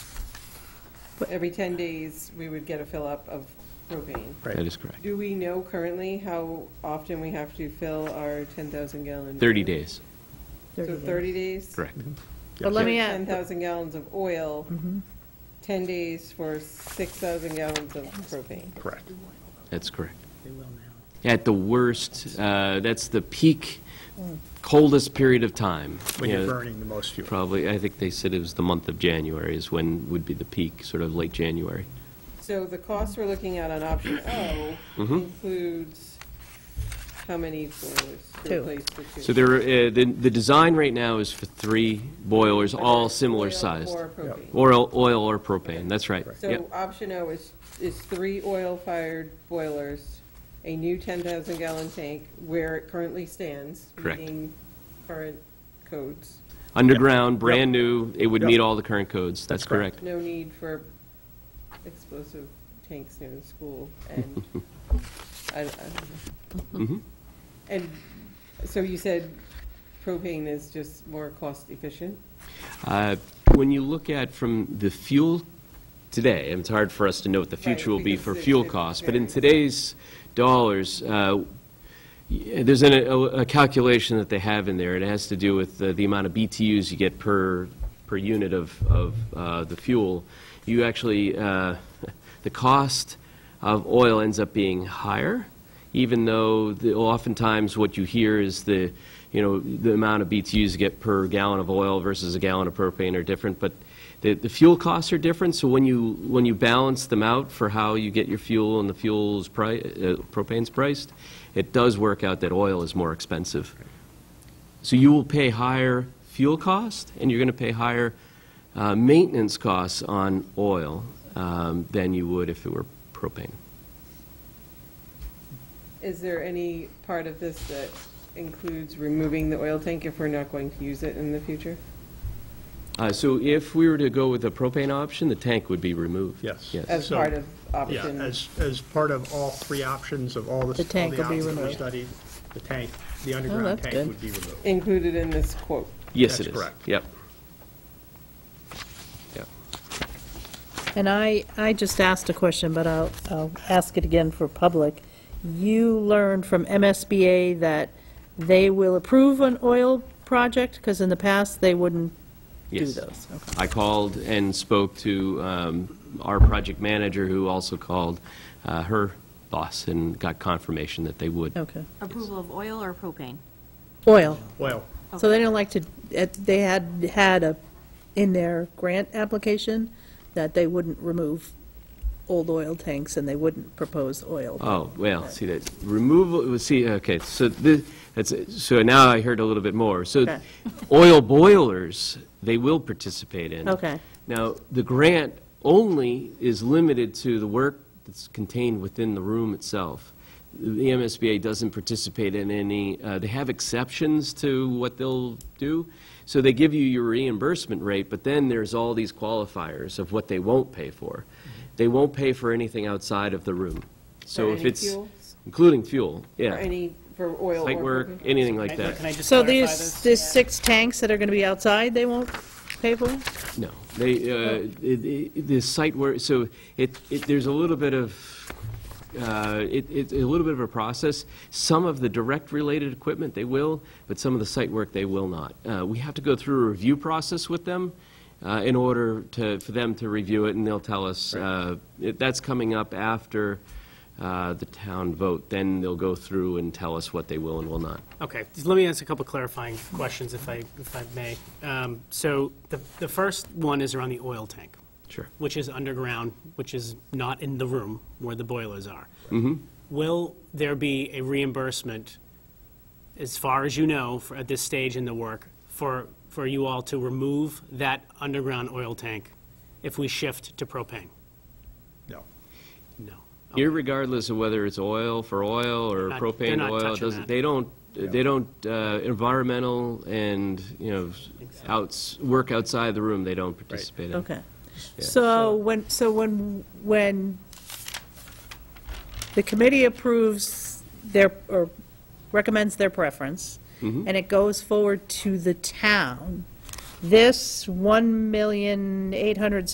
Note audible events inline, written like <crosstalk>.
every 10 days, we would get a fill-up of propane. That Right. is correct. Do we know currently how often we have to fill our 10,000 gallon? 30 days, So 30 days? correct. But So let me add, Mm-hmm. 10,000 gallons of oil, 10 days for 6,000 gallons of propane. correct. That's correct. At the worst, uh, that's the peak coldest period of time. When you you're know, burning the most fuel. Probably, I think they said it was the month of January is when would be the peak, sort of late January. So the cost we're looking at on option O Mm-hmm. includes how many boilers to Two. replace the two? So there, uh, the, the design right now is for three boilers, all similar Oil sized. Or propane. Oil, oil or propane, that's right. So Yep. option O is, is three oil-fired boilers, a new 10,000 gallon tank where it currently stands. Correct. Meeting current codes. Underground, brand new, it would meet Yep. all the current codes, that's That's correct. correct. No need for explosive tanks near the school and, I, I don't know. Mhm. And so you said propane is just more cost efficient? Uh, When you look at from the fuel today, and it's hard for us to know what the future will be because for it- fuel it costs, but in varies. today's dollars, uh, y- there's an- a a calculation that they have in there, and it has to do with the the amount of BTUs you get per, per unit of, of uh, the fuel. You actually, uh, <laughs> the cost of oil ends up being higher, even though the- oftentimes what you hear is the, you know, the amount of BTUs you get per gallon of oil versus a gallon of propane are different, but the, the fuel costs are different, so when you, when you balance them out for how you get your fuel and the fuel's price, propane's priced, it does work out that oil is more expensive. So you will pay higher fuel cost, and you're going to pay higher uh, maintenance costs on oil um, than you would if it were propane. Is there any part of this that includes removing the oil tank if we're not going to use it in the future? Uh, So if we were to go with the propane option, the tank would be removed. Yes. As So- part of Yeah, option, as, as part of all three options of all the, all The tank the will be options we removed. Oh, studied, the tank, the underground that's tank good. would be removed. included in this quote? Yes, it is. That's correct. Yep. Yep. And I, I just asked a question, but I'll, I'll ask it again for public. You learned from MSBA that they will approve an oil project, because in the past, they wouldn't do Yes. those. Okay. I called and spoke to um, our project manager, who also called uh, her boss, and got confirmation that they would. Okay. Approval of oil or propane? Oil. Well, So they don't like to, it- they had, had a, in their grant application, that they wouldn't remove old oil tanks, and they wouldn't propose oil. Oh, well, see that, removal, well, see, okay, so this, that's, so now I heard a little bit more. So Okay. oil boilers, they will participate in. Okay. Now, the grant only is limited to the work that's contained within the room itself. The MSBA doesn't participate in any, uh, they have exceptions to what they'll do. So they give you your reimbursement rate, but then there's all these qualifiers of what they won't pay for. They won't pay for anything outside of the room. So For if any it's, fuels? including fuel, For yeah. any, for oil Site or work, propane? anything like Can I- Can that. I just So clarify these, this? these six tanks that are going to be outside, they won't pay for? No, they, uh, Oh. it- it- the site work, so it, it- there's a little bit of, uh, it- it's a little bit of a process. Some of the direct related equipment, they will, but some of the site work, they will not. Uh, We have to go through a review process with them uh, in order to, for them to review it, and they'll tell us, uh, it- that's coming up after uh, the town vote. Then they'll go through and tell us what they will and will not. Okay, just let me ask a couple clarifying questions if I, if I may. Um, So the, the first one is around the oil tank, Sure. which is underground, which is not in the room where the boilers are. Mm-hmm. Will there be a reimbursement, as far as you know, for, at this stage in the work, for, for you all to remove that underground oil tank if we shift to propane? no. No. Irregardless of whether it's oil for oil or They're not- they're propane not oil, it touching doesn't, that. they don't, they don't, uh, environmental and, you know, outs, work outside the room, they don't participate in. Okay. So when, so when, when the committee approves their, or recommends their preference, and it goes forward to the town, this one million eight hundred